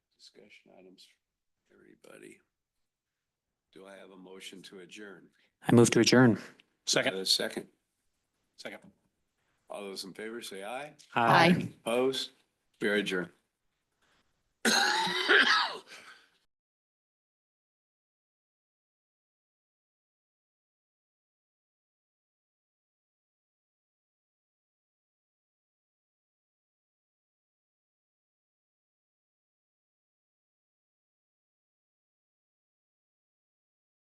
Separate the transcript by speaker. Speaker 1: discussion items for everybody. Do I have a motion to adjourn?
Speaker 2: I move to adjourn.
Speaker 1: Second. A second. Second. All those in favor say aye.
Speaker 2: Aye.
Speaker 3: Aye.
Speaker 1: Opposed? We are adjourned.